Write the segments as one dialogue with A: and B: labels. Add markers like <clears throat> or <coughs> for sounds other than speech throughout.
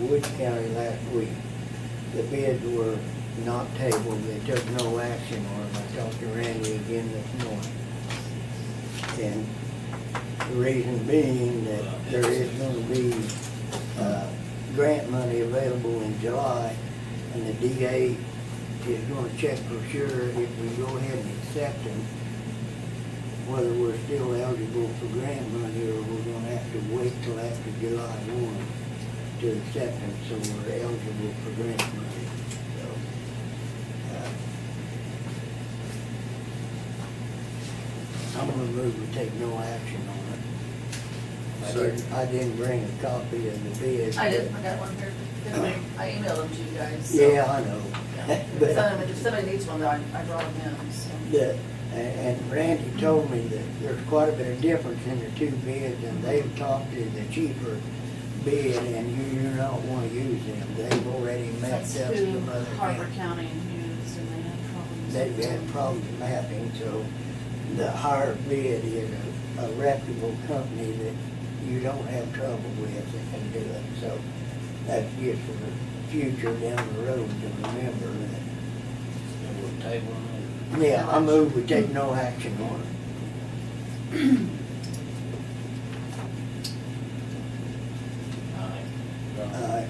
A: Woods County last week. The bids were not tabled, they took no action on them. I talked to Randy again this morning. And the reason being that there is gonna be, uh, grant money available in July, and the DA is gonna check for sure if we go ahead and accept them, whether we're still eligible for grant money, or we're gonna have to wait till after July one to accept them, so we're eligible for grant money, so. uh, I'm gonna move to take no action on it. I didn't, I didn't bring a copy of the bid.
B: I did,
A: but-
B: I got one here. I emailed them to you guys. so-
A: Yeah, I know.
B: If
A: But
B: somebody- if somebody needs one, though, I I brought them in, so.
A: the, and and Randy told me that there's quite a bit of difference in the two bids, and they've talked to the cheaper bid, and you, you don't wanna use them. They've already
C: That's
A: messed up
C: who
A: some other
C: Harper
A: things.
C: County used and they had problems.
A: They've had problems mapping, so the higher bid is a- a reputable company that you don't have trouble with that can do it. So that's just for the future down the road to remember that
D: We'll table it.
A: Yeah, I move we take no action on it.
D: Aye.
A: Uh,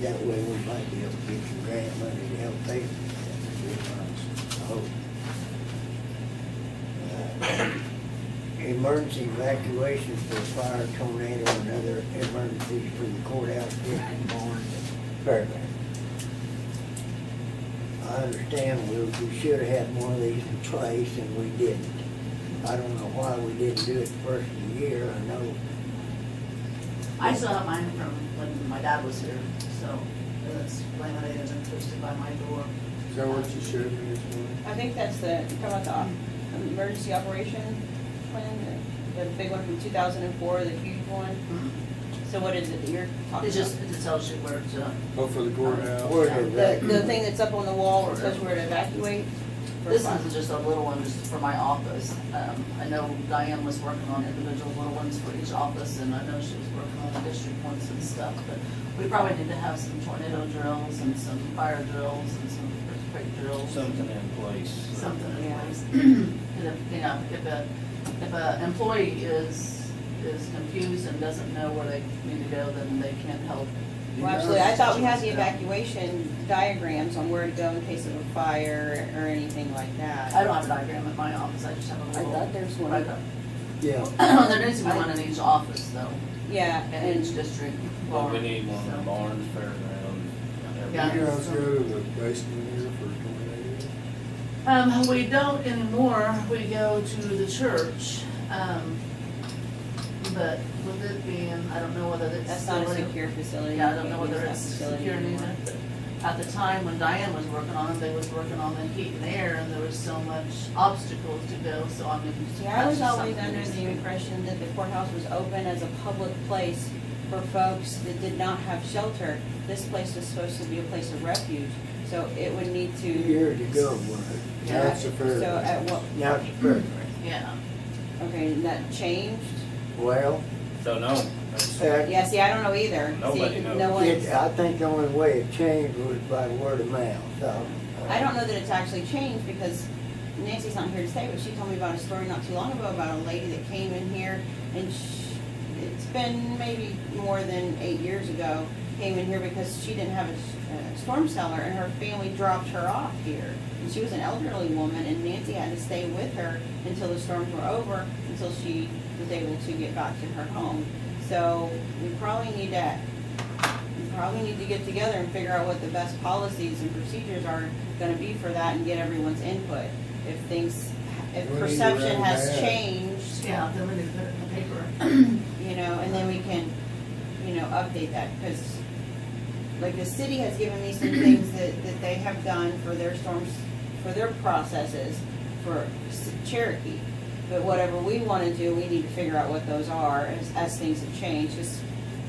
A: That way we might be able to get some grant money to help pay for that. Oh. I hope. Uh, Emergency evacuation for fire, tornado, and other emergencies for the courthouse district barn at Fairbanks. I understand we, we should have had one of these in place and we didn't. I don't know why we didn't do it the first of the year, I know,
B: I still have mine from when my dad was here, so that's laminated and posted by my door.
E: Is that what you showed me this morning?
F: I think that's the, you're talking about the op- emergency operation plan, the, the big one from two thousand and four, the huge one.
A: Mm-hmm.
F: So what is it that you're talking
B: It
F: about?
B: just, it just tells you where to,
E: Oh, for the courthouse?
A: where did
F: The, the
A: that,
F: thing that's up on the wall where it says where to evacuate? for
B: this
F: fire.
B: one's just a little one, just for my office. Um, I know Diane was working on individual little ones for each office, and I know she was working on the district ones and stuff, but we probably need to have some tornado drills and some fire drills and some earthquake drills.
D: Something in place.
B: something in
F: Yeah.
B: place. <clears throat> And if, you know, if a, if a employee is, is confused and doesn't know where they need to go, then they can't help.
F: Well, absolutely, I thought we had the
B: Yeah.
F: evacuation diagrams on where to go in case of a fire or anything like that.
B: I don't have a diagram at my office, I just have a
F: I
B: little.
F: thought there's one.
B: I don't-
A: yeah,
B: <clears throat> There needs to be one in each office though,
F: Yeah,
B: in each
F: and,
B: district.
D: Well, we
B: barn,
D: need one in the
B: so.
D: barns, fairground.
B: Yeah.
E: You guys go to the basement here for tornadoes?
B: Um, we don't anymore, we go to the church, um, but with it being, I don't know whether it's.
F: that's not a
B: still in-
F: secure facility.
B: Yeah, I
F: You
B: don't know
F: can't
B: whether
F: use that
B: it's
F: facility
B: secure
F: anymore.
B: either, but at the time when Diane was working on it, they was working on the heat and air, and there was so much obstacles to go, so I mean.
F: Yeah, I was
B: that's
F: always
B: something
F: under
B: that's-
F: the impression that the courthouse was open as a public place for folks that did not have shelter. This place was supposed to be a place of refuge, so it would need to.
A: years ago, wasn't
B: Yeah.
E: That's a fair.
F: So at what,
A: it? Now it's perfect.
B: Yeah,
F: okay, and that changed?
A: Well,
D: So no, that's-
A: that-
F: Yeah, see, I don't know either. See,
D: Nobody knows.
F: No one's,
A: it, I think the only way it changed was by word of mouth, so. uh,
F: I don't know that it's actually changed because Nancy's not here today, but she told me about a story not too long ago about a lady that came in here and sh it's been maybe more than eight years ago, came in here because she didn't have a, s- a storm cellar and her family dropped her off here. And she was an elderly woman and Nancy had to stay with her until the storms were over, until she was able to get back to her home. So we probably need to we probably need to get together and figure out what the best policies and procedures are gonna be for that and get everyone's input. If things, if
E: We need to
F: perception
E: run
F: has
E: that.
F: changed,
B: yeah, then we need to put it in the paper.
F: you know, and then we can, you know, update that, because like the city has given me some things that, that they have done for their storms, for their processes for S- Cherokee. But whatever we wanna do, we need to figure out what those are as, as things have changed, just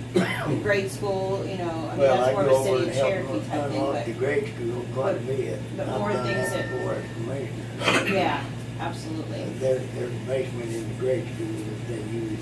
F: <coughs> grade school, you know, I mean,
A: Well, I
F: that's more
A: go
F: of a
A: over and
F: city of
A: help
F: Cherokee type thing,
A: unlock
F: but.
A: the grade school quite a bit.
F: but
A: I've
F: more
A: done
F: things that-
A: Before as commissioner.
F: Yeah, absolutely.
A: There's, there's a basement in the grade school that they use